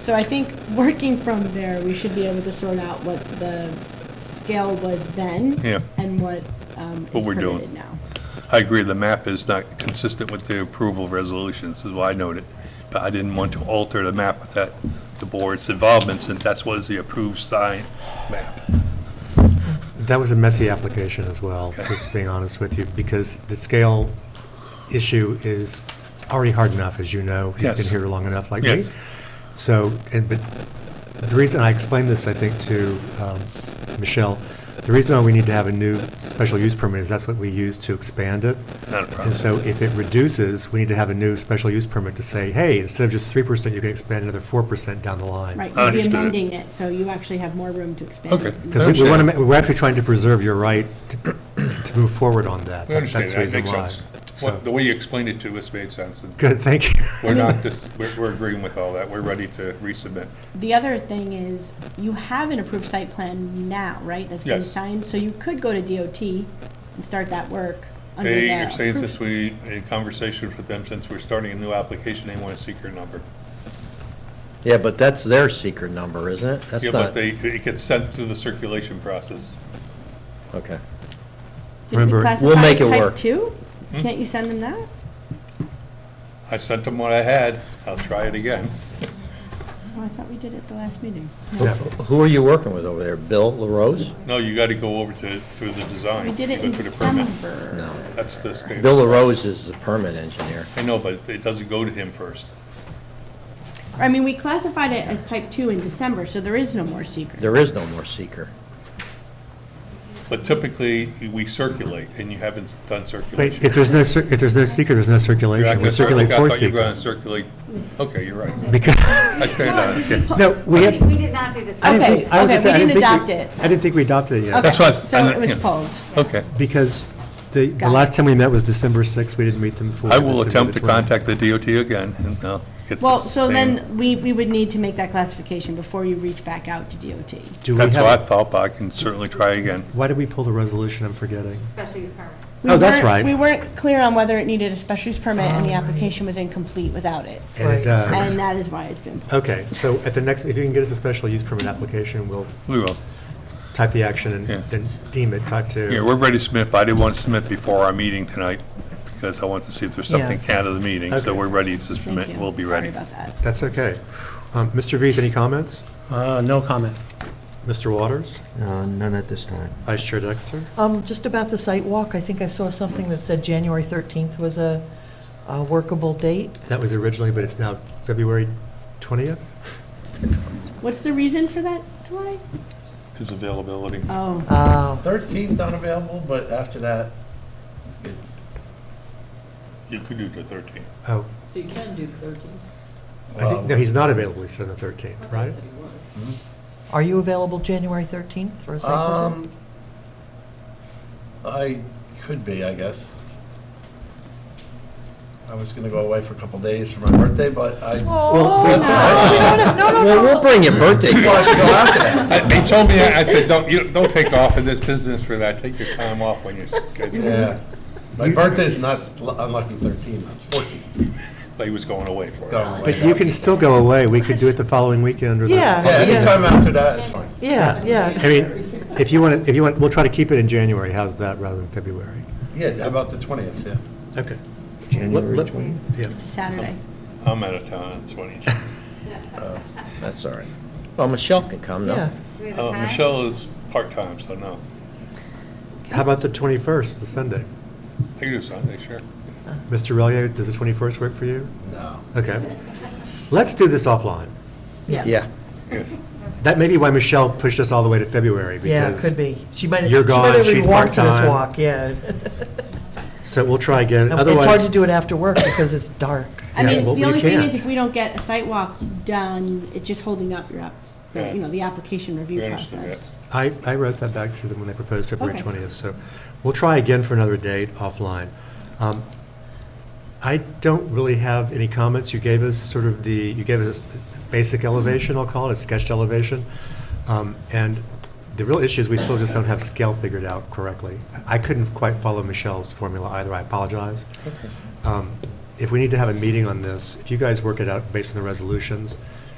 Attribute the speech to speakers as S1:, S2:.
S1: So I think working from there, we should be able to sort out what the scale was then.
S2: Yeah.
S1: And what um,
S2: What
S1: is
S2: we're doing.
S1: permitted now.
S2: I agree, the map is not consistent with the approval resolution, this is why I noted. But I didn't want to alter the map with that, the board's involvement, since that's was the approved sign map.
S3: That was a messy application as well, just being honest with you, because the scale issue is already hard enough, as you know. You've
S2: Yes.
S3: been here long enough, like me.
S2: Yes.
S3: So, and, but the reason I explained this, I think, to um, Michelle, the reason why we need to have a new special use permit is that's what we use to expand it.
S2: Not a problem.
S3: And so if it reduces, we need to have a new special use permit to say, hey, instead of just three percent, you can expand another four percent down the line.
S1: Right,
S2: I
S1: you'd be
S2: understood it.
S1: amending it, so you actually have more room to expand.
S2: Okay.
S1: it.
S3: Because we want to, we're actually trying to preserve your right to to move forward on that.
S2: We understand,
S3: That's the
S2: that
S3: reason
S2: makes
S3: why.
S2: sense.
S3: So-
S2: What, the way you explained it to us made sense, and
S3: Good, thank you.
S2: we're not, dis- we're we're agreeing with all that, we're ready to resubmit.
S1: The other thing is, you have an approved site plan now, right? That's been
S2: Yes.
S1: signed, so you could go to DOT and start that work under
S2: They
S1: their
S2: are saying
S1: approved-
S2: since we, in conversations with them, since we're starting a new application, they want a secret number.
S4: Yeah, but that's their secret number, isn't it? That's
S2: Yeah, but
S4: not,
S2: they, it gets sent through the circulation process.
S4: okay.
S1: Did we
S3: Remember, we'll
S1: classify
S4: make
S1: as
S4: it
S1: type
S4: work.
S1: two?
S2: Hmm?
S1: Can't you send them that?
S2: I sent them what I had, I'll try it again.
S1: Oh, I thought we did it the last meeting.
S4: Who- Who are you working with over there? Bill LaRose?
S2: No, you gotta go over to, through the design.
S1: We did it
S2: go
S1: in
S2: through the permit.
S1: December.
S4: No.
S2: That's the standard.
S4: Bill LaRose is the permit engineer.
S2: I know, but it doesn't go to him first.
S1: I mean, we classified it as type two in December, so there is no more secret.
S4: There is no more seeker.
S2: But typically, we circulate, and you haven't done
S3: Wait,
S2: circulation.
S3: if there's no, cir- if there's no secret, there's no
S2: You're not
S3: circulation. We
S2: gonna cir-
S3: circulate
S2: okay,
S3: for
S2: I thought you were gonna
S3: secret.
S2: circulate, okay, you're right.
S3: Because,
S2: I stand on it.
S3: no, we
S5: We
S3: have,
S5: did- we did not do this.
S3: I didn't
S1: Okay,
S3: think, I was
S1: okay,
S3: gonna say,
S1: we
S3: I didn't
S1: didn't
S3: think.
S1: adopt it.
S3: I didn't think we adopted it yet.
S1: Okay,
S2: That's what I s-
S1: So
S2: I-
S1: it was
S2: yeah.
S1: pulled.
S2: Okay.
S3: Because the, the
S1: Got it.
S3: last time we met was December 6th, we didn't meet them for.
S2: I will
S3: December
S2: attempt to
S3: 12th.
S2: contact the DOT again, and I'll get
S1: Well,
S2: the
S1: so
S2: same.
S1: then we, we would need to make that classification before you reach back out to DOT.
S3: Do we
S2: That's what I
S3: have,
S2: thought, but I can certainly try again.
S3: why did we pull the resolution? I'm forgetting.
S5: Special use permit.
S1: We
S3: Oh, that's
S1: weren't-
S3: right.
S1: We weren't clear on whether it needed a special use permit, and the application was incomplete without it.
S3: And it does.
S1: And that is why it's been pulled.
S3: Okay, so at the next, if you can get us a special use permit application, we'll
S2: We will.
S3: type the action and
S2: Yeah.
S3: then deem it type two.
S2: Yeah, we're ready to submit, but I didn't want to submit before our meeting tonight, because I want to see if there's something out of the meeting,
S3: Okay.
S2: so we're ready to
S1: Thank
S2: submit,
S1: you.
S2: we'll be
S1: Sorry
S2: ready.
S1: about that.
S3: That's okay. Um, Mr. Veith, any comments?
S6: Uh, No comment.
S3: Mr. Waters?
S4: None at this time.
S3: Vice Chair Dexter?
S7: Um, Just about the site walk, I think I saw something that said January 13th was a a workable date.
S3: That was originally, but it's now February 20th?
S1: What's the reason for that delay?
S2: His availability.
S1: Oh,
S7: Uh,
S8: 13th not available, but after that, it-
S2: You could do the 13th.
S3: Oh,
S9: So you can do 13.
S3: I think, no,
S8: well,
S3: he's not available, he said on the 13th,
S9: I
S3: right?
S9: thought you said it was.
S7: Are you available January 13th for a site visit?
S8: um, I could be, I guess. I was gonna go away for a couple days for my birthday, but I.
S3: Well,
S8: That's all right.
S4: Well, we'll bring your birthday.
S8: Well, I should go after that.
S2: I- They told me, I said, don't, you, don't take off in this business for that, take your time off when you're scheduled.
S8: Yeah. My
S3: You-
S8: birthday's not lu- unlucky 13, it's 14.
S2: But he was going away for
S8: Going away.
S2: it.
S3: but you can still go away, we could do it the following weekend or the.
S7: Yeah.
S8: Yeah, anytime after that is fine.
S7: Yeah, yeah.
S3: I mean, if you want, to, if you want, we'll try to keep it in January, how's that, rather than February?
S8: Yeah, about the 20th, yeah.
S3: Okay.
S4: January
S3: Let- let-
S4: 20th.
S3: Yeah,
S1: it's a Saturday.
S2: I'm out of town on 20.
S4: That's all right. Well, Michelle can come, no?
S7: Yeah.
S5: Do we have a
S2: Uh,
S5: time?
S2: Michelle is part-time, so no.
S3: how about the 21st, the Sunday?
S2: I can do Sunday, sure.
S3: Mr. Relia, does the 21st work for you?
S8: No.
S3: Okay. Let's do this offline.
S4: Yeah.
S2: Yes.
S3: That may be why Michelle pushed us all the way to February,
S7: Yeah, it
S3: because.
S7: could be. She might, she
S3: you're
S7: might
S3: gone,
S7: not
S3: she's
S7: even walk to this
S3: part-time.
S7: walk, yeah.
S3: So we'll try again, otherwise.
S7: It's hard to do it after work because it's dark.
S1: I
S3: Yeah,
S1: mean,
S3: well,
S1: the
S3: you
S1: only thing is
S3: can't.
S1: if we don't get a site walk done, it's just holding up your, app-
S2: Yeah.
S1: you know, the application review
S2: We understand
S1: process.
S3: I, I wrote that back to them when they proposed February
S1: Okay.
S3: 20th, so we'll try again for another date offline. Um, I don't really have any comments. You gave us sort of the, you gave us a basic elevation, I'll call it, a sketched elevation. Um, And the real issue is we still just don't have scale figured out correctly. I couldn't quite follow Michelle's formula either, I apologize. Um, If we need to have a meeting on this, if you guys work it out based on the resolutions,